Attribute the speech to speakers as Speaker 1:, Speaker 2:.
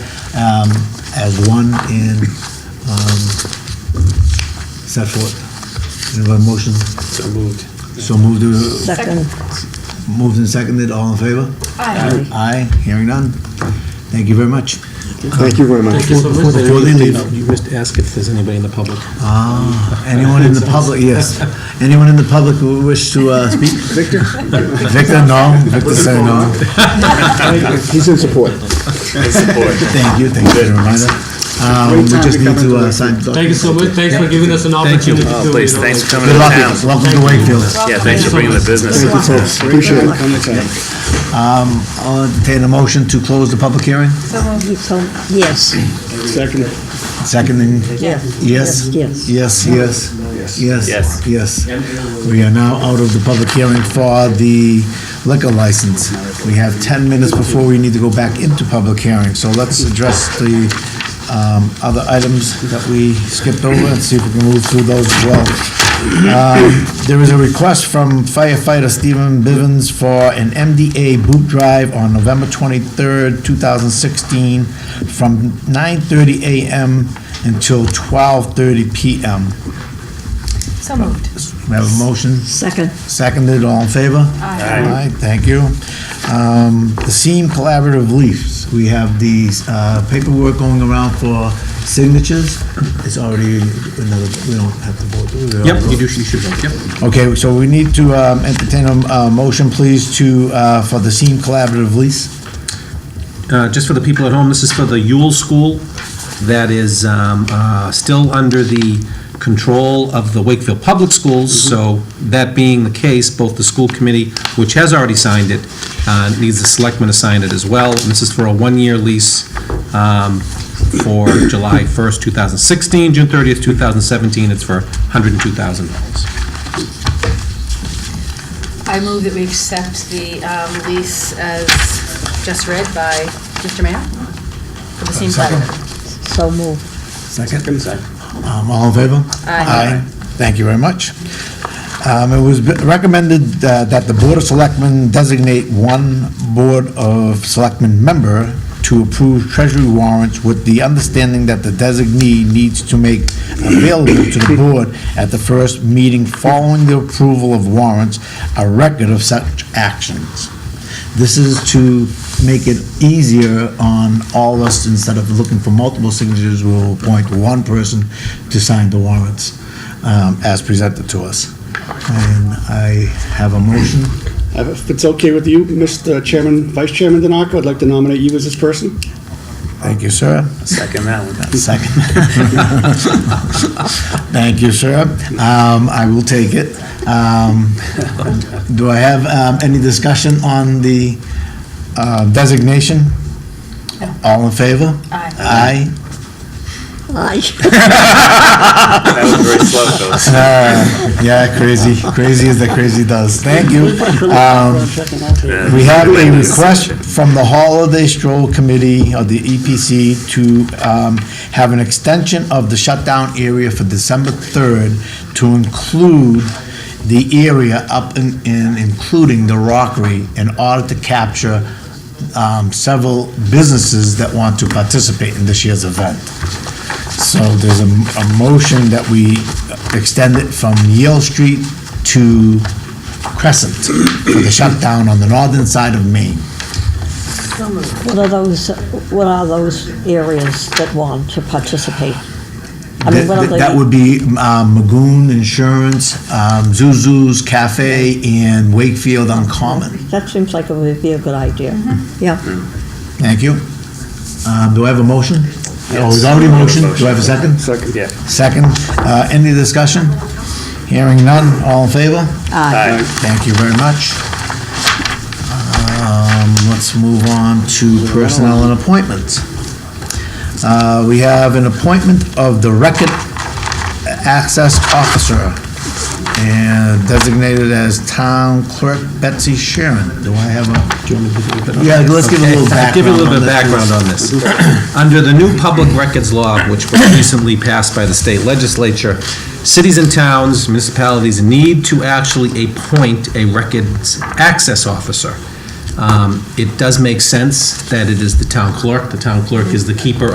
Speaker 1: um, as one and um, set forth. Do you have a motion?
Speaker 2: So moved.
Speaker 1: So moved, uh,
Speaker 3: Second.
Speaker 1: moved and seconded, all in favor?
Speaker 3: Aye.
Speaker 1: Aye, hearing none. Thank you very much.
Speaker 4: Thank you very much.
Speaker 2: Thank you so much.
Speaker 1: Before they leave.
Speaker 2: You missed ask if there's anybody in the public.
Speaker 1: Ah, anyone in the public, yes. Anyone in the public who wish to uh, speak?
Speaker 4: Victor?
Speaker 1: Victor, no. Victor said no.
Speaker 4: He's in support.
Speaker 1: Thank you, thank you for the reminder. Um, We just need to uh, sign.
Speaker 5: Thank you so much, thanks for giving us an
Speaker 2: Thank you.
Speaker 5: opportunity to.
Speaker 6: Oh, please,
Speaker 5: you know,
Speaker 6: thanks for coming
Speaker 1: Good
Speaker 6: to
Speaker 1: luck,
Speaker 6: town.
Speaker 1: welcome to Wakefield.
Speaker 6: Yeah, thanks for bringing the business.
Speaker 4: Thank you, folks. Appreciate it.
Speaker 1: I'll entertain a motion to close the public hearing.
Speaker 3: Yes,
Speaker 4: Second.
Speaker 1: Seconding,
Speaker 3: yes.
Speaker 1: yes?
Speaker 3: Yes.
Speaker 1: Yes, yes, yes.
Speaker 6: Yes.
Speaker 1: Yes. We are now out of the public hearing for the liquor license. We have 10 minutes before we need to go back into public hearing, so let's address the um, other items that we skipped over and see if we can move through those as well. Um, There is a request from firefighter Stephen Bivens for an MDA boot drive on November 23rd, 2016, from 9:30 a.m. until 12:30 p.m.
Speaker 7: So moved.
Speaker 1: We have a motion?
Speaker 3: Second.
Speaker 1: Seconded, all in favor? Aye. thank you. Um, The Seam Collaborative Leafs, we have these uh, paperwork going around for signatures. It's already another, we don't have to vote. do we?
Speaker 2: Yep, you do, you should vote, yep.
Speaker 1: Okay, so we need to um, entertain a uh, motion, please, to, uh, for the Seam Collaborative lease.
Speaker 2: Uh, just for the people at home, this is for the Yule School that is um, uh, still under the control of the Wakefield Public Schools. So that being the case, both the school committee, which has already signed it, uh, needs the selectmen to sign it as well. And this is for a one-year lease um, for July 1st, 2016, June 30th, 2017. It's for $102,000.
Speaker 7: I move that we accept the um, lease as just read by Mr. Mayor for the same
Speaker 1: Second.
Speaker 7: letter.
Speaker 3: So moved.
Speaker 1: Second. Um, All in favor?
Speaker 7: Aye.
Speaker 1: Thank you very much. Um, It was recommended uh, that the Board of Selectmen designate one Board of Selectmen member to approve treasury warrants with the understanding that the designee needs to make available to the board at the first meeting following the approval of warrants, a record of such actions. This is to make it easier on all of us, instead of looking for multiple signatures, we'll appoint one person to sign the warrants um, as presented to us. And I have a motion.
Speaker 4: If it's okay with you, Mr. Chairman, Vice Chairman Denarco, I'd like to nominate you as this person.
Speaker 1: Thank you, sir.
Speaker 6: Second that one.
Speaker 1: Second. Thank you, sir. Um, I will take it. Um, Do I have um, any discussion on the uh, designation?
Speaker 7: No.
Speaker 1: All in favor?
Speaker 7: Aye.
Speaker 1: Aye.
Speaker 3: Aye.
Speaker 6: That was very slow, folks.
Speaker 1: Uh, Yeah, crazy, crazy as the crazy does. Thank you. Um, We have a request from the Holiday Stroll Committee of the EPC to um, have an extension of the shutdown area for December 3rd to include the area up and, and including the rockery in order to capture um, several businesses that want to participate in this year's event. So there's a, a motion that we extend it from Yale Street to Crescent for the shutdown on the northern side of Maine.
Speaker 3: What are those, what are those areas that want to participate? I mean, what are
Speaker 1: That
Speaker 3: they?
Speaker 1: that would be um, Magoon Insurance, um, Zuzu's Cafe, and Wakefield on Common.
Speaker 3: That seems like it would be a good idea. Yeah,
Speaker 1: Thank you. Um, Do I have a motion? Oh, it's already motioned. Do I have a second?
Speaker 4: Second.
Speaker 6: Yeah.
Speaker 1: Second. Uh, Any discussion? Hearing none. All in favor?
Speaker 6: Aye.
Speaker 1: Thank you very much. Um, Let's move on to personnel and appointments. Uh, We have an appointment of the record access officer and designated as town clerk Betsy Sharon. Do I have a? Yeah, let's give a little
Speaker 2: Okay, Give you a little bit of
Speaker 1: background
Speaker 2: background
Speaker 1: on
Speaker 2: on this. Under the new public records law, which was recently passed by the state legislature, cities and towns, municipalities need to actually appoint a records access officer. Um, It does make sense that it is the town clerk. The town clerk is the keeper